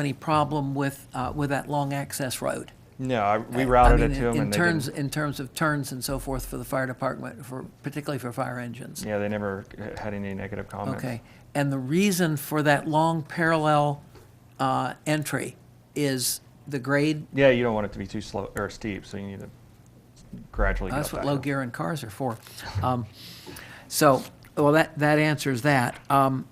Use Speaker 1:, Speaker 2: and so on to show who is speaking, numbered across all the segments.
Speaker 1: any problem with, uh, with that long access road.
Speaker 2: No, I- we
Speaker 1: I
Speaker 2: routed
Speaker 1: mean,
Speaker 2: it to
Speaker 1: in-
Speaker 2: them
Speaker 1: In
Speaker 2: and they
Speaker 1: terms,
Speaker 2: didn't,
Speaker 1: in terms of turns and so forth for the fire department, for, particularly for fire engines.
Speaker 2: yeah, they never had any negative comments.
Speaker 1: Okay, and the reason for that long parallel uh, entry is the grade?
Speaker 2: Yeah, you don't want it to be too slow or steep, so you need to gradually get up
Speaker 1: That's what
Speaker 2: that
Speaker 1: low
Speaker 2: hill.
Speaker 1: gear and cars are for. Um, So, well, that, that answers that. Um,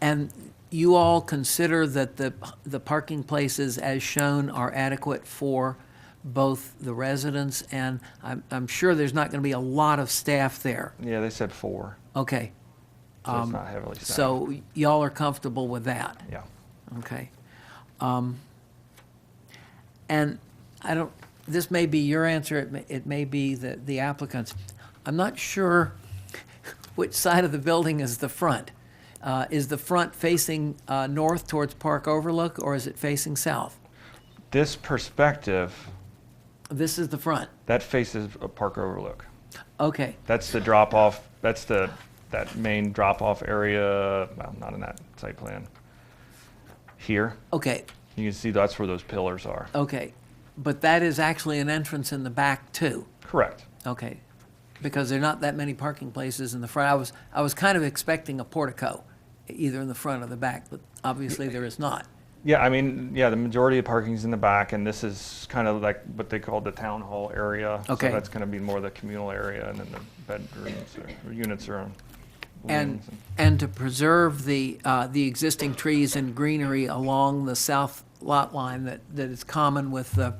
Speaker 1: And you all consider that the, the parking places as shown are adequate for both the residents and I'm, I'm sure there's not going to be a lot of staff there.
Speaker 2: Yeah, they said four,
Speaker 1: Okay,
Speaker 2: so it's not heavily stacked.
Speaker 1: Um, so y'all are comfortable with that?
Speaker 2: Yeah.
Speaker 1: Okay. Um, And I don't, this may be your answer, it may, it may be the the applicant's. I'm not sure which side of the building is the front. Uh, Is the front facing uh, north towards Park Overlook, or is it facing south?
Speaker 2: This perspective,
Speaker 1: This is the front.
Speaker 2: that faces a Park Overlook.
Speaker 1: Okay,
Speaker 2: That's the drop off, that's the, that main drop off area, well, not in that site plan. Here,
Speaker 1: okay,
Speaker 2: you can see that's where those pillars are.
Speaker 1: okay. But that is actually an entrance in the back, too.
Speaker 2: Correct.
Speaker 1: Okay, because there are not that many parking places in the front. I was, I was kind of expecting a portico, either in the front or the back, but obviously there is not.
Speaker 2: Yeah, I mean, yeah, the majority of parking's in the back, and this is kind of like what they call the town hall area.
Speaker 1: Okay.
Speaker 2: So that's gonna be more the communal area, and then the bedrooms or units are on
Speaker 1: And,
Speaker 2: wings
Speaker 1: and to preserve the, uh, the existing trees and greenery along the south lot line that, that is common with the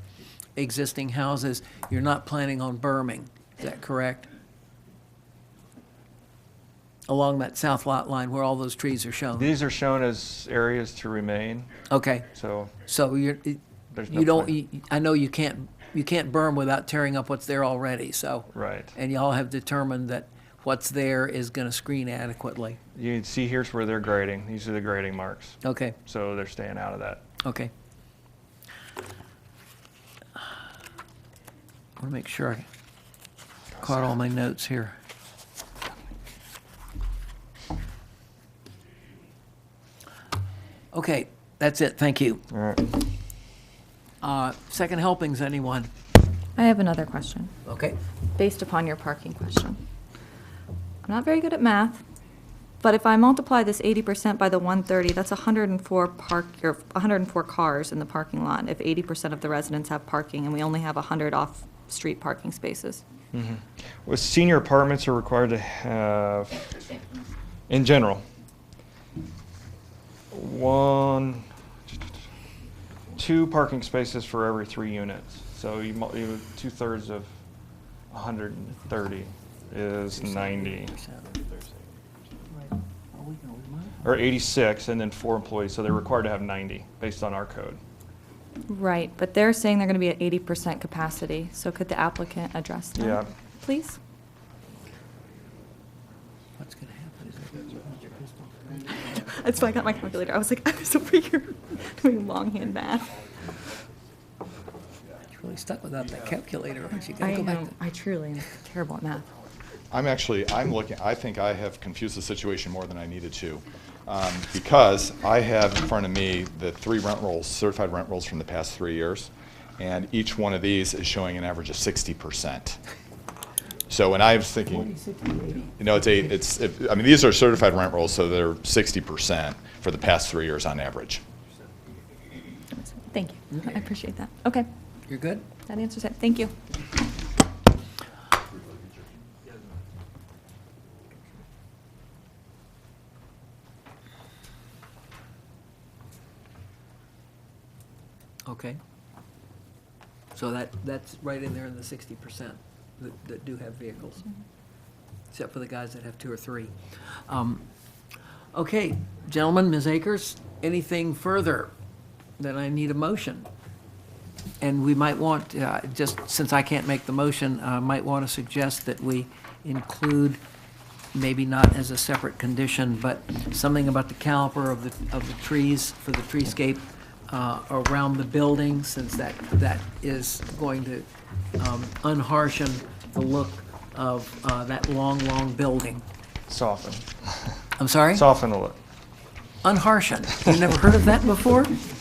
Speaker 1: existing houses, you're not planning on berming, is that correct? Along that south lot line where all those trees are shown?
Speaker 2: These are shown as areas to remain,
Speaker 1: Okay,
Speaker 2: so
Speaker 1: so you're,
Speaker 2: there's no.
Speaker 1: You don't,
Speaker 2: plan-
Speaker 1: you- I know you can't, you can't burn without tearing up what's there already, so.
Speaker 2: Right.
Speaker 1: And y'all have determined that what's there is gonna screen adequately.
Speaker 2: You can see here's where they're grading. These are the grading marks.
Speaker 1: Okay,
Speaker 2: So they're staying out of that.
Speaker 1: okay. I wanna make sure I caught all my notes here. Okay, that's it, thank you.
Speaker 2: All right.
Speaker 1: Uh, second helpings, anyone?
Speaker 3: I have another question,
Speaker 1: Okay,
Speaker 3: based upon your parking question. I'm not very good at math, but if I multiply this eighty percent by the one thirty, that's hundred and four park, or hundred and four cars in the parking lot, if eighty percent of the residents have parking, and we only have hundred off-street parking spaces.
Speaker 2: Well, senior apartments are required to have, in general, one, two parking spaces for every three units. So you, mul- you two thirds of 130 is 90 or 86, and then four employees. So they're required to have 90 based on our code.
Speaker 3: Right, but they're saying they're gonna be at eighty percent capacity, so could the applicant address that?
Speaker 2: Yeah.
Speaker 3: Please?
Speaker 1: What's gonna happen is
Speaker 3: That's why I got my calculator, I was like, I was over here doing longhand math.
Speaker 1: You're really stuck without that calculator, aren't you? Gotta
Speaker 3: I
Speaker 1: go back
Speaker 3: know, I truly am terrible at math.
Speaker 4: I'm actually, I'm looking, I think I have confused the situation more than I needed to, um, because I have in front of me the three rent rolls, certified rent rolls from the past three years, and each one of these is showing an average of sixty percent. So, and I was thinking, you know, it's eight, it's, it- I mean, these are certified rent rolls, so they're sixty percent for the past three years on average.
Speaker 3: Thank you. I appreciate that. Okay,
Speaker 1: to- You're good?
Speaker 3: that answers it. Thank you.
Speaker 1: Okay. So that, that's right in there in the sixty percent that, that do have vehicles. Except for the guys that have two or three. Um, Okay, gentlemen, Ms. Akers, anything further that I need a motion? And we might want, uh, just since I can't make the motion, I might want to suggest that we include, maybe not as a separate condition, but something about the caliper of the, of the trees for the treescape uh, around the building, since that, that is going to um, unharshen the look of uh, that long, long building.
Speaker 2: Soften.
Speaker 1: I'm sorry?
Speaker 2: Soften the look.
Speaker 1: unharshen. You've never heard of that before?